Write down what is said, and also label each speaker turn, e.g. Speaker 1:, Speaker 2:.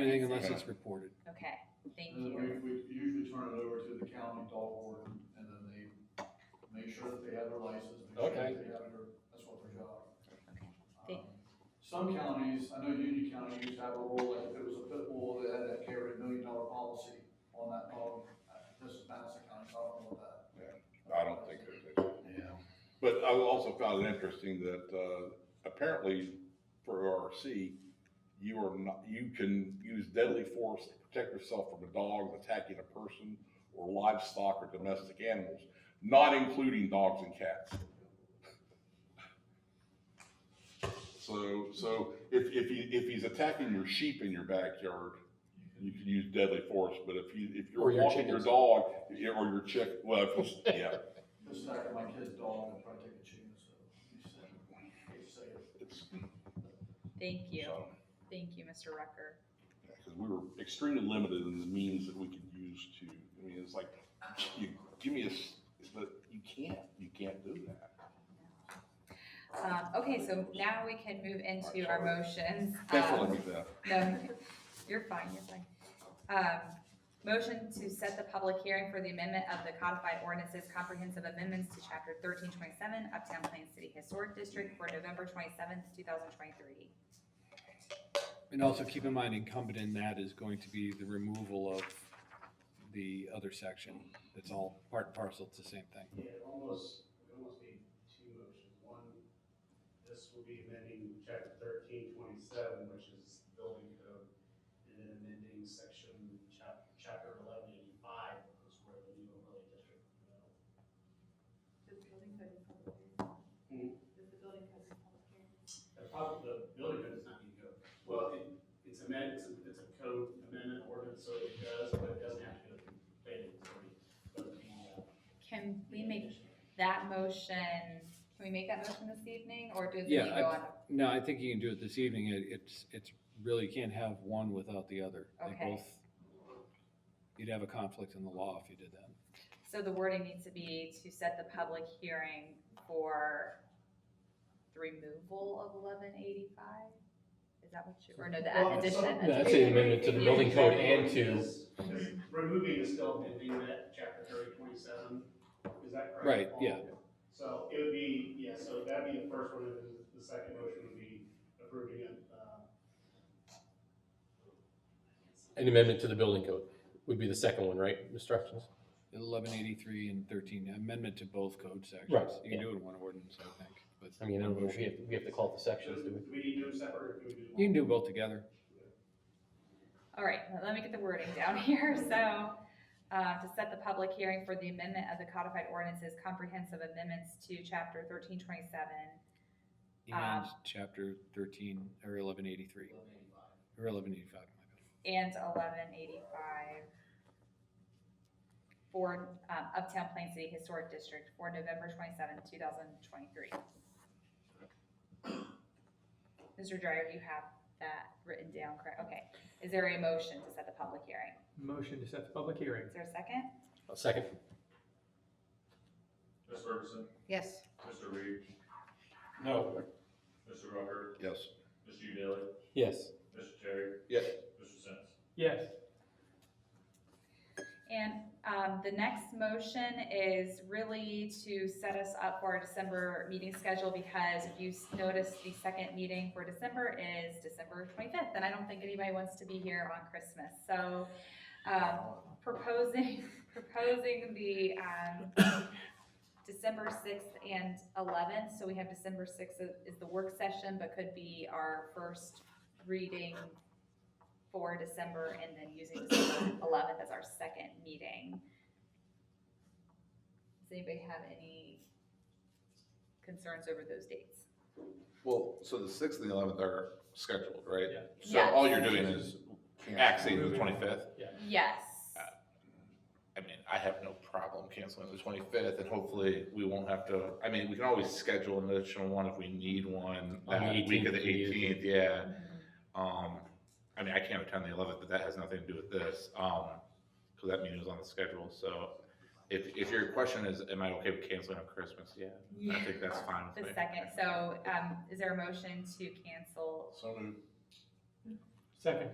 Speaker 1: Anything unless it's reported.
Speaker 2: Okay, thank you.
Speaker 3: And then we, we usually turn it over to the county dog warden, and then they make sure that they have their license, make sure
Speaker 1: Okay.
Speaker 3: that they have their, that's what their job.
Speaker 2: They-
Speaker 3: Um, Some counties, I know Union County used to have a rule, like if it was a pit bull, they had to carry a million dollar policy on that dog. Uh, This is Madison County, so I don't know that.
Speaker 4: I don't think there's any.
Speaker 3: Yeah.
Speaker 4: But I also found it interesting that, uh, apparently for ORC, you are not, you can use deadly force to protect yourself from a dog attacking a person or livestock or domestic animals, not including dogs and cats. So, so if, if he, if he's attacking your sheep in your backyard, you can use deadly force, but if you, if
Speaker 1: Or
Speaker 4: you're
Speaker 1: your
Speaker 4: walking your
Speaker 1: chickens.
Speaker 4: dog, or your chick, well, if it's- yeah,
Speaker 3: This is after my kid's dog, and tried to take a chicken, so he said, he said.
Speaker 4: it's,
Speaker 2: Thank you,
Speaker 4: Mm-hmm. so.
Speaker 2: thank you, Mr. Rucker.
Speaker 4: Because we were extremely limited in the means that we could use to, I mean, it's like, you, give me a, s- but you can't, you can't do that.
Speaker 2: Um, okay, so now we can move into our motions.
Speaker 4: Thanks for
Speaker 2: Um,
Speaker 4: letting me do that.
Speaker 2: No, you're fine, you're fine. Um, motion to set the public hearing for the amendment of the codified ordinances comprehensive amendments to chapter thirteen twenty-seven Uptown Plain City Historic District for November twenty-seventh, two thousand twenty-three.
Speaker 1: And also keep in mind incumbent in that is going to be the removal of the other section. It's all part and parcel, it's the same thing.
Speaker 5: Yeah, it almost, it almost need two motions. One, this will be amending chapter thirteen twenty-seven, which is building code, and then amending section chap, chapter eleven eighty-five, which is where the new overlay district.
Speaker 6: Does the building code is public
Speaker 5: Hmm.
Speaker 6: hearing? Does the building code is public hearing?
Speaker 5: The problem, the building code does not need to go, well, it, it's amend, it's a, it's a code amendment ordinance, so it does, but it doesn't have to go through planning authority. but the, uh,
Speaker 2: Can we make that motion, can we make that motion this evening, or does it
Speaker 1: Yeah,
Speaker 2: need to
Speaker 1: I-
Speaker 2: go on?
Speaker 1: No, I think you can do it this evening. It- It's, it's really you can't have one without the other. They
Speaker 2: Okay.
Speaker 1: both, you'd have a conflict in the law if you did that.
Speaker 2: So the wording needs to be to set the public hearing for the removal of eleven eighty-five? Is that what you, or no,
Speaker 5: Well,
Speaker 2: the
Speaker 5: so-
Speaker 2: addition?
Speaker 7: No, that's an amendment to the building code and to,
Speaker 5: Is- is Removing is still amending that chapter thirty twenty-seven, is that correct?
Speaker 1: Right, yeah.
Speaker 5: So it would be, yeah, so that'd be the first one, and then the second motion would be approving it, uh,
Speaker 7: an amendment to the building code would be the second one, right, Mr. Hutchins?
Speaker 1: Eleven eighty-three and thirteen, amendment to both code sections.
Speaker 7: Right,
Speaker 1: You can do it in one ordinance, I think, but.
Speaker 7: I mean, I
Speaker 1: one
Speaker 7: don't know if we
Speaker 1: motion.
Speaker 7: have, we have to call it the
Speaker 5: so
Speaker 7: sections, do
Speaker 5: do we need to do them separate, or do we do? them
Speaker 1: You can do both together.
Speaker 2: All right, let me get the wording down here, so, uh, to set the public hearing for the amendment of the codified ordinances comprehensive amendments to chapter thirteen twenty-seven.
Speaker 1: And
Speaker 2: Um,
Speaker 1: chapter thirteen, or eleven eighty-three, or eleven eighty-five, my bad.
Speaker 2: and eleven eighty-five for um, Uptown Plain City Historic District for November twenty-seven, two thousand twenty-three. Mr. Dryer, you have that written down, correct? Okay. Is there a motion to set the public hearing?
Speaker 8: Motion to set the public hearing.
Speaker 2: Is there a second?
Speaker 7: we? A second?
Speaker 9: Ms. Ferguson,
Speaker 2: Yes.
Speaker 9: Mr. Reed,
Speaker 7: No.
Speaker 9: Mr. Rucker,
Speaker 4: Yes.
Speaker 9: Mr. Daly,
Speaker 7: Yes.
Speaker 9: Mr. Terry.
Speaker 4: Yes.
Speaker 9: Mr. Sins.
Speaker 8: Yes.
Speaker 2: And um, the next motion is really to set us up for our December meeting schedule because if you s- notice, the second meeting for December is December 25th, and I don't think anybody wants to be here on Christmas. So um, proposing, proposing the um, December 6th and 11th, so we have December 6th is- is the work session, but could be our first reading for December and then using December eleventh as our second meeting. Does anybody have any concerns over those dates?
Speaker 4: Well, so the sixth and the eleventh are scheduled, right?
Speaker 8: Yeah.
Speaker 4: So all you're doing is axing the twenty-fifth.
Speaker 2: Yes.
Speaker 4: I mean, I have no problem canceling the twenty-fifth and hopefully we won't have to, I mean, we can always schedule an additional one if we need one.
Speaker 7: On the
Speaker 4: That week of the
Speaker 7: 18th, we
Speaker 4: eighteenth, yeah. Um, I mean, I can't attend the eleventh, but that has nothing to do with this, um, because that meeting was on the schedule, so. If, if your question is, am I okay with canceling on Christmas, yeah, I think that's fine
Speaker 2: The
Speaker 4: with me.
Speaker 2: second, so, um, is there a motion to cancel?
Speaker 4: So moved.
Speaker 8: Second.